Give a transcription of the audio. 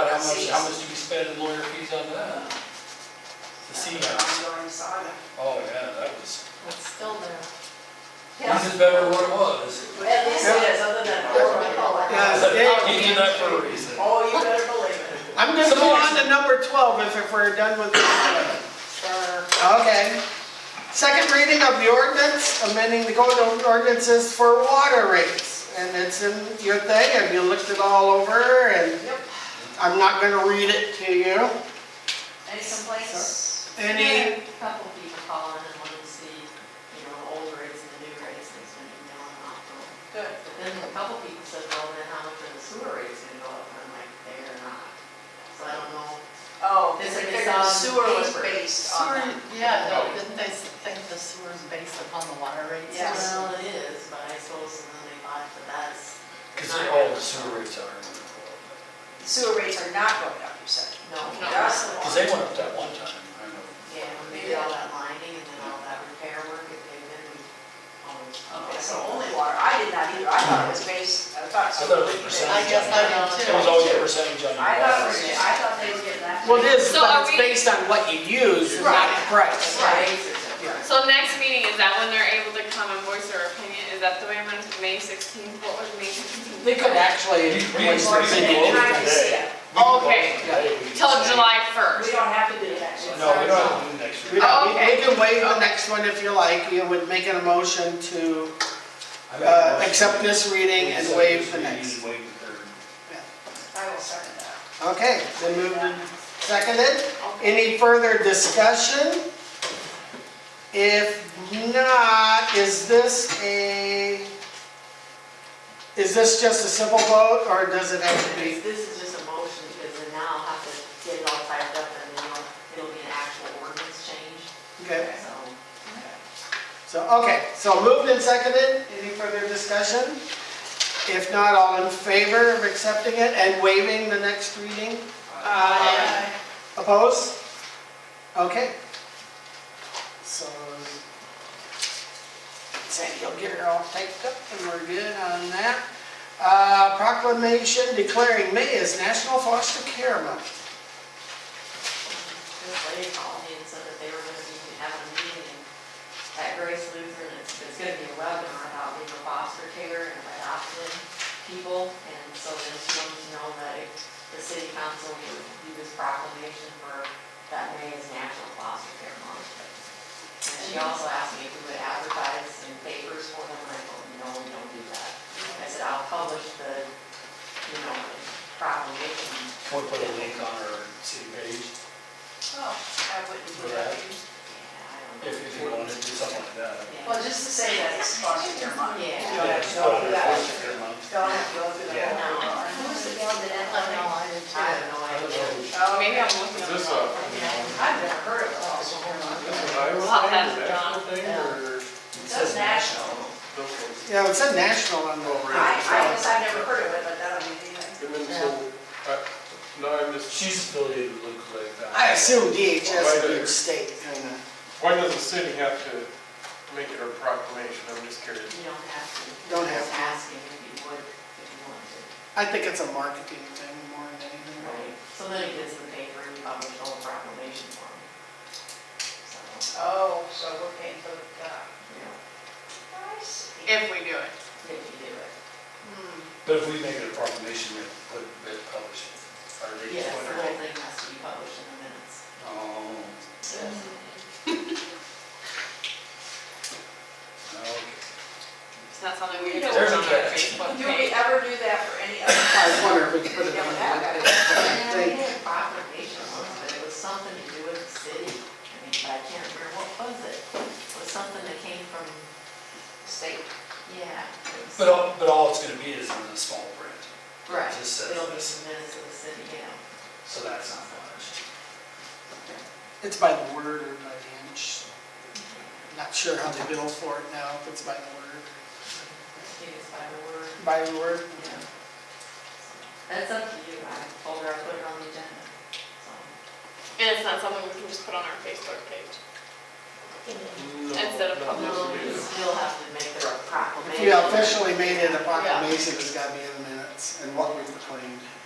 much, how much do we spend in lawyer fees on that? The CMAX, Ongoing saga. oh, yeah, that was, It's still there. this is better than what it was. At least it is, other than horrible. Yeah. You did that for a reason. Oh, you better believe it. I'm gonna go on to number twelve if- if we're done with. this. Uh, Okay. Second reading of the ordinance, amending the code of ordinances for water rates. And it's in your thing, and you looked it all over, and Yep. I'm not gonna read it to you. Any complaints? Any, A Couple people calling and wanting to see, you know, the old rates and the new rates, and it's been going on and on. Good. But then a couple people said, well, then how much are the sewer rates gonna go up? And I'm like, they are not. So I don't know. Oh, This because is the on sewer was paper. based on Uh, that. Yeah, no, didn't they s- think the sewer's based upon the water rates? Yes. Well, it is, but I suppose, and then they thought that that's. Because all the sewer rates are, Sewer rates are not going up, you said. No. That's the because one. they went up that one time. I know. Yeah, when they did all that lining and then all that repair work, if they've been, um, Oh, Okay, so only water, I did not either, uh, I thought it was based, I I thought. thought it was I percentage. guess I don't It was always a percentage on your. I thought it was, water rates. I thought they were getting that. well, it is, So but are it's we- based on what you use, not the price. Right. Right. So next meeting, is that when they're able to come and voice their opinion? Is that the way I'm on May sixteenth? What was May sixteenth? They could actually. We- we- we- And I can see it. Okay. Today, we- Till July We first? don't have to do that. No, we don't Oh, have to do next We year. don't- we- Okay. We can waive the next one if you like, you would make a motion to I make a uh, motion. accept this reading and Accept waive this the reading next. and waive the third. I will start it out. Okay, then moved and seconded. Any further discussion? If not, is this a, is this just a simple vote or does it have to be? This is just a motion, because then now I'll have to get it all typed up and then it'll, it'll be an actual ordinance change, Okay, so. so, okay, so moved and seconded. Any further discussion? If not, all in favor of accepting it and waiving the next reading? Aye. Um, Opposed? Okay. So, so you'll get her all taped up and we're good on that. Uh, Proclamation declaring May as National Foster Care Month. This lady called me and said that they were gonna be having a meeting at Grace Lutheran, it's, it's gonna be a webinar about legal foster care and adopted people, and so then she wanted to know that if the city council would do this proclamation for that May as National Foster Care Month. And she also asked me if we would advertise in papers for them, and I told her, no, we don't do that. I said, I'll publish the, you know, proclamation Can we put a link on our city page Oh, I wouldn't for do that, that. if, if you want to do something like that? Well, just to say that it's foster care month. Yeah. You don't Yeah, have just put to go through it that. as a fair month. Don't have to go through the whole Yeah. thing. the gal that had left me all in I have no I don't idea. know. Oh, Maybe I'm looking. Oh, at Is this the a, wrong one. I've never heard of foster care month. this an Iowa Well, thing, that's a national thing, or? It says national. those- Yeah, it said national on the, I, I guess I've never heard of it, but that'll be anything. And then so, I- uh, no, I missed, She's affiliated with Luke like that. I assume DHS would be the state, kinda. why does the city have to make it a proclamation? I'm just curious. You don't have to. Don't have Just to. asking if you would, if you want to. I think it's a marketing thing more than anything. Right. So then it gets in the paper and you publish all the proclamation for them. So, Oh, so we're paying for the, uh, you know, I see. If we do it. if you do it. But if we make it a proclamation, we have to put it published, or they Yes, just the put whole it. thing has to be published in the minutes. Oh, okay. It's not something we can There's a just put on our catch. Facebook Do we page. ever do that for any other? I was wondering if we could put it on that. Yeah, we They- had a proclamation once, but it was something to do with the city. I mean, but I can't remember what was it. It was something that came from, State. yeah. it was- But all, but all it's gonna be is in the small print, Right, just says it'll be this. the minutes of the city, yeah. so that's not much. It's by the word or by the inch. Not sure how they bill for it now, if it's by the word. It is by the word, By the word? yeah. That's up to you, I told her I put it on the agenda, so. And it's not something we can just put on our Facebook page. Instead of No, public- no, You this is still have to make the proclamation. If you officially made it a proclamation, it's gotta be in the minutes and what we proclaimed.